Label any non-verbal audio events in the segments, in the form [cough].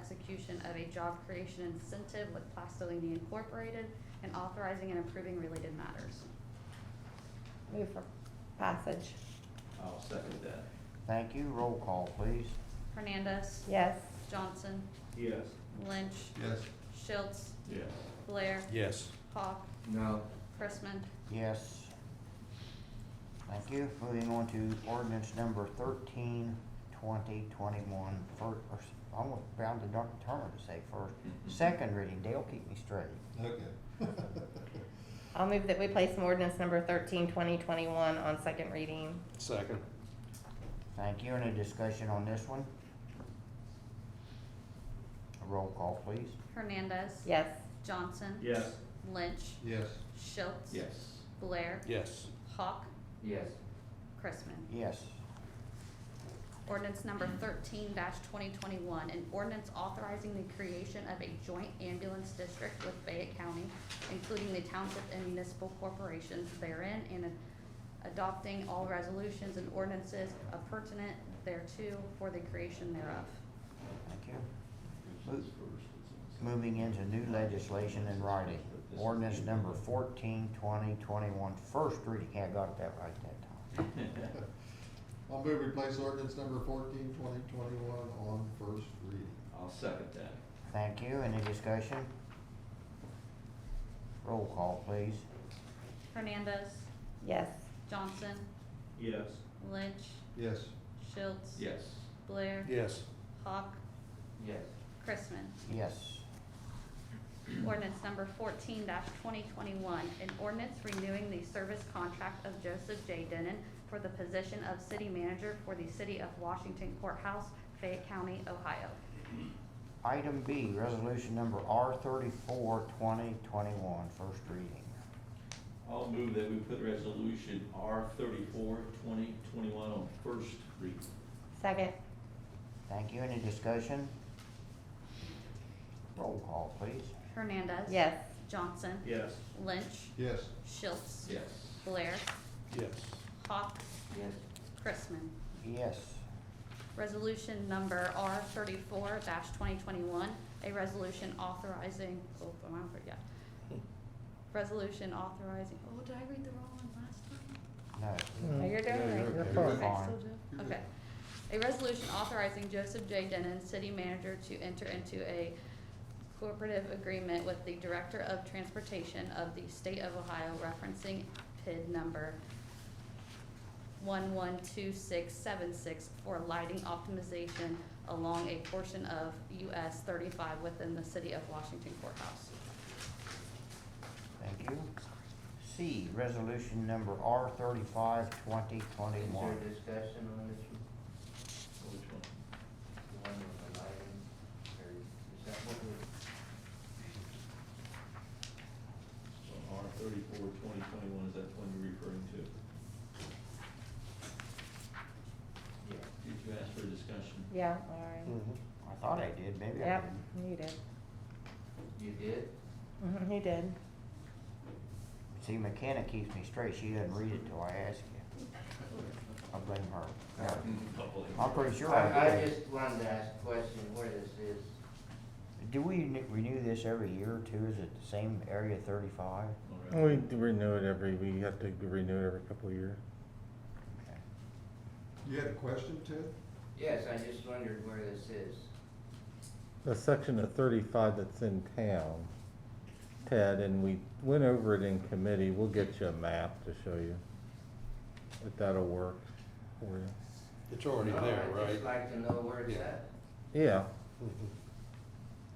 execution of a job creation incentive with Plastolini Incorporated and authorizing and approving related matters. Move for passage. I'll second that. Thank you. Roll call, please. Hernandez. Yes. Johnson. Yes. Lynch. Yes. Schultz. Yes. Blair. Yes. Hawk. No. Chrisman. Yes. Thank you. Moving on to ordinance number thirteen twenty twenty-one. First, I was bound to Dr. Turner to say first. Second reading. Dale, keep me straight. Okay. I'll move that we place an ordinance number thirteen, twenty twenty-one on second reading. Second. Thank you. Any discussion on this one? Roll call, please. Hernandez. Yes. Johnson. Yes. Lynch. Yes. Schultz. Yes. Blair. Yes. Hawk. Yes. Chrisman. Yes. Ordinance number thirteen twenty twenty-one, an ordinance authorizing the creation of a joint ambulance district with Fayette County, including the township and municipal corporations therein, and adopting all resolutions and ordinances pertinent thereto for the creation thereof. Thank you. Moving into new legislation in writing. Ordinance number fourteen twenty twenty-one. First reading. Yeah, I got that right that time. [laughs] I'll move we place ordinance number fourteen, twenty twenty-one on first reading. [laughs] I'll second that. Thank you. Any discussion? Roll call, please. Hernandez, Yes. Johnson, Yes. Lynch, Yes. Schultz. Yes. Blair. Yes. Hawk, Yes. Chrisman. Yes. Ordinance number fourteen twenty twenty-one, an ordinance renewing the service contract of Joseph J. Denon for the position of city manager for the city of Washington Courthouse, Fayette County, Ohio. Item B, resolution number R thirty-four twenty twenty-one, first reading. I'll move that we put resolution R thirty-four, twenty twenty-one on first reading. Second. Thank you. Any discussion? Roll call, please. Hernandez. Yes. Johnson. Yes. Lynch. Yes. Schultz. Yes. Blair. Yes. Hawk. Yes. Chrisman. Yes. Resolution number R thirty-four twenty twenty-one, a resolution authorizing, oh, I'm out for- yeah. Resolution authorizing, oh, did I read the wrong one last time? No. No, you're doing Yeah, right. you're okay. You're fine. fine. You're good. Okay. A resolution authorizing Joseph J. Denon, city manager, to enter into a cooperative agreement with the Director of Transportation of the State of Ohio referencing PID number one-one-two-six-seven-six for lighting optimization along a portion of US thirty-five within the city of Washington courthouse. Thank you. C, resolution number R thirty-five twenty Is there twenty-one. discussion on this one, Which one? the one with the lighting, or is that what we're, R thirty-four, twenty twenty-one, is that the one you're referring to? yeah, Did you ask for discussion? Yeah, all Mm. Mm-hmm. I thought I did, right. maybe I Yep, didn't. you did. you did? Mhm, You did. See, McKenna keeps me straight, she doesn't read it till I ask you. I blame her. Probably. I'm pretty sure I I, I did. just wanted to ask a question where this is, Do we ne- renew this every year or two? Is it the same area thirty-five? All right. We do renew it every, we have to renew it every couple of years. Okay. You had a question, Ted? yes, I just wondered where this is, The section of thirty-five that's in town, Ted, and we went over it in committee, we'll get you a map to show you. If that'll work for you. It's already No, there, Uh, I'd right? just like to know where it's Yeah. at, Yeah,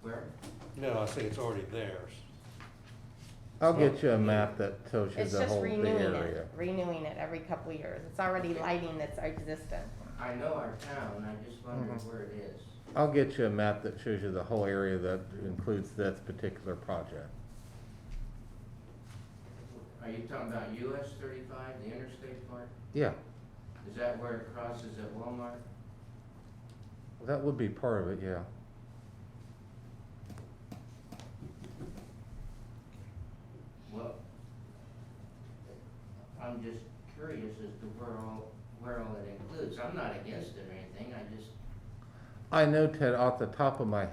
where, No, I say it's already theirs. I'll get you a map that shows you It's the just whole, the renewing area. it, renewing it every couple years. It's already lighting that's existent. I know our town, I just wondered where it is. I'll get you a map that shows you the whole area that includes this particular project. Are you talking about US thirty-five, the interstate part, Yeah, is that where it crosses at Walmart? that would be part of it, yeah. Well, I'm just curious as to where all, where all it includes, I'm not against it or anything, I just I know, Ted, off the top of my